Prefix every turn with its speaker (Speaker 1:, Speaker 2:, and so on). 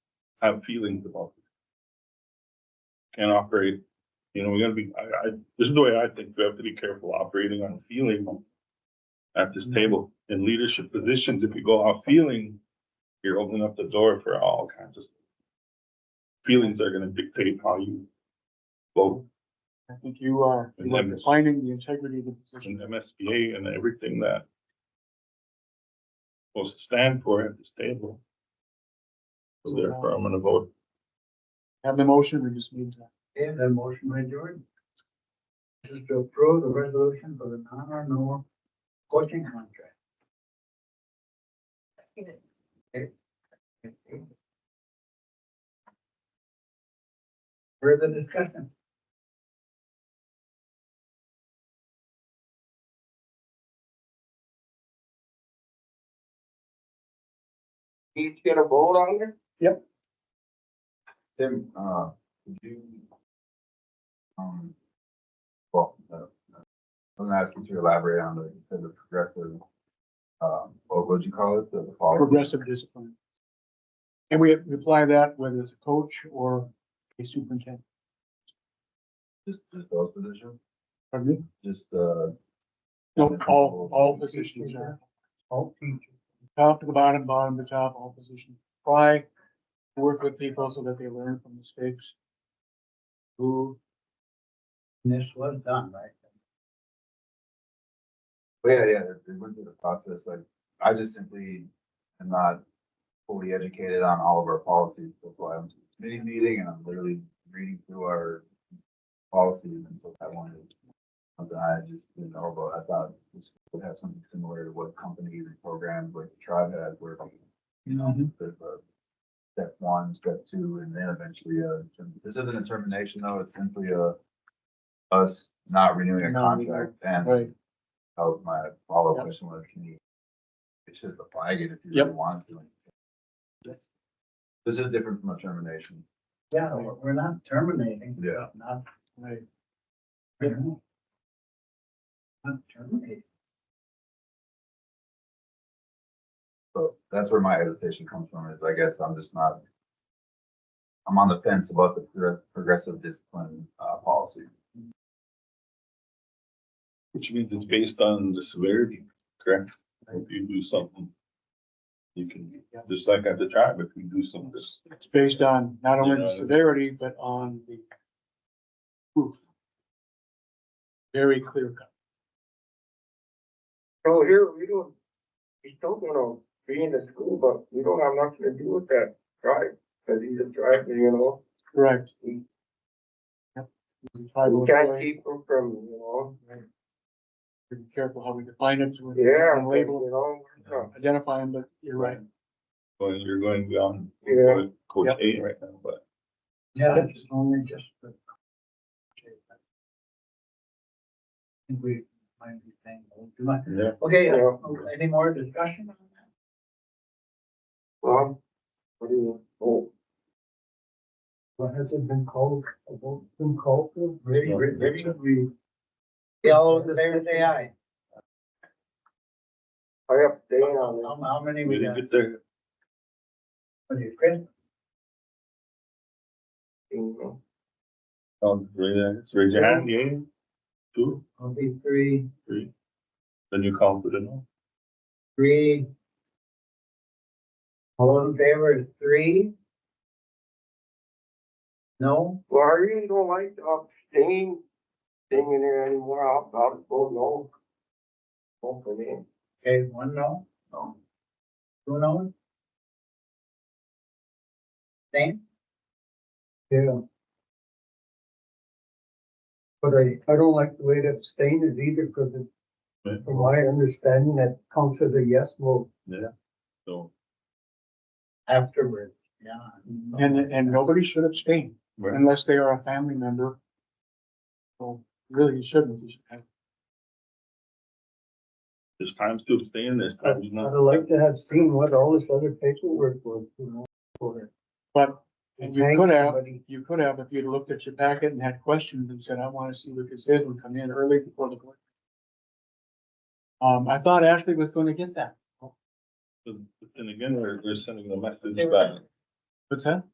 Speaker 1: have feelings about it. Can't operate, you know, we gotta be, I, I, this is the way I think, we have to be careful operating on feeling at this table in leadership positions. If you go off feeling, you're opening up the door for all kinds of feelings that are gonna dictate how you vote
Speaker 2: I think you are,
Speaker 1: And
Speaker 2: you are
Speaker 1: then-
Speaker 2: defining the integrity of the
Speaker 1: and
Speaker 2: position.
Speaker 1: MSBA and everything that supposed to stand for at this table. So therefore, I'm gonna vote
Speaker 2: Have the motion, we just need to,
Speaker 3: And a motion by Jordan. This is to approve the resolution for the non renewal coaching contract. Okay. Further discussion? Each get a vote on it?
Speaker 2: Yep.
Speaker 3: Tim, uh, could you? Um, well, uh, I'm gonna ask you to elaborate on the, you said the progressive, um, what would you call it, the the follow?
Speaker 2: progressive discipline. And we we apply that whether it's a coach or a superintendent,
Speaker 3: Just, just those positions,
Speaker 2: pardon me?
Speaker 3: just, uh.
Speaker 2: No, all, all positions are. All teachers. Top to the bottom, bottom to top, all positions. Try to work with people so that they learn from mistakes. Who,
Speaker 3: This was done, right? Well, yeah, yeah, it- it went through the process, like, I just simply am not fully educated on all of our policies, that's why I'm to this committee meeting and I'm literally reading through our policies and so I wanted something I just didn't know about, I thought this would have something similar to what companies and programs like Tribe had where you know,
Speaker 4: Mm-hmm.
Speaker 3: there's a step one, step two, and then eventually a, this isn't a termination though, it's simply a us not renewing a
Speaker 2: No, we-
Speaker 3: contract and
Speaker 2: right,
Speaker 3: that was my follow-up
Speaker 2: Yep.
Speaker 3: question was, can you? It should apply again if you
Speaker 2: Yep.
Speaker 3: really want to.
Speaker 2: Yes.
Speaker 3: This is different from a termination.
Speaker 4: Yeah, we're we're not terminating.
Speaker 3: Yeah.
Speaker 4: Not,
Speaker 2: right.
Speaker 4: not terminating.
Speaker 3: So that's where my hesitation comes from is I guess I'm just not. I'm on the fence about the pro- progressive discipline, uh, policy.
Speaker 1: Which means it's based on the severity, correct? If you do something, you can, just like at the tribe, if you do something, this,
Speaker 2: It's based on not only the
Speaker 1: Yeah.
Speaker 2: severity, but on the proof. Very clear cut.
Speaker 5: So here, we don't, we don't wanna be in the school, but we don't have nothing to do with that tribe, cause he's a tribe, you know?
Speaker 2: Correct.
Speaker 5: Mm.
Speaker 2: Yep. We try to
Speaker 5: We can't
Speaker 2: avoid-
Speaker 5: keep him from, you know?
Speaker 2: be careful how we define it. to
Speaker 5: Yeah,
Speaker 2: and Label,
Speaker 5: you know, we're not-
Speaker 2: identify them, but you're right.
Speaker 1: well, you're going beyond
Speaker 5: Yeah.
Speaker 1: Coach A right now, but
Speaker 4: Yeah, this is only just the. Okay, I think we might be saying, oh, do I?
Speaker 1: Yeah.
Speaker 4: Okay,
Speaker 5: Yeah.
Speaker 4: uh, any more discussion on that?
Speaker 5: Well, what do you, oh,
Speaker 4: What has it been called, a vote been called for?
Speaker 5: maybe, maybe we,
Speaker 4: Yeah, all those in favor say aye.
Speaker 5: I have to stay
Speaker 4: How,
Speaker 5: on
Speaker 4: how many
Speaker 1: we
Speaker 4: we
Speaker 1: didn't
Speaker 4: got?
Speaker 1: get there.
Speaker 4: What do you, Chris?
Speaker 5: it, you know?
Speaker 1: Um, raise your- raise your hand, yeah, two,
Speaker 4: I'll be three,
Speaker 1: three, then you call for the no.
Speaker 4: three. All those in favor is three? No?
Speaker 5: Well, I really don't like
Speaker 4: uh,
Speaker 5: the abstain thing in there anymore, I'll, I'll vote no. Vote for me.
Speaker 4: Okay, one no? No. Two no? Same? Yeah. But I, I don't like the way that abstain is either, because
Speaker 1: Right.
Speaker 4: from my understanding, that counts as a yes vote.
Speaker 1: So,
Speaker 4: Afterwards, yeah.
Speaker 2: And, and nobody should abstain
Speaker 1: right,
Speaker 2: unless they are a family member. So really, you shouldn't. You should have-
Speaker 1: there's times to abstain, there's times
Speaker 4: I'd
Speaker 1: not.
Speaker 4: like to have seen what all this other paperwork was, you know, for.
Speaker 2: But and you
Speaker 4: Thank
Speaker 2: could have,
Speaker 4: somebody.
Speaker 2: you could have, if you'd looked at your packet and had questions and said, I want to see what this is, and come in early before the board. Um, I thought Ashley was going to get that.
Speaker 1: But then again, we're, we're sending the message
Speaker 4: They were-
Speaker 1: back.
Speaker 2: What's that?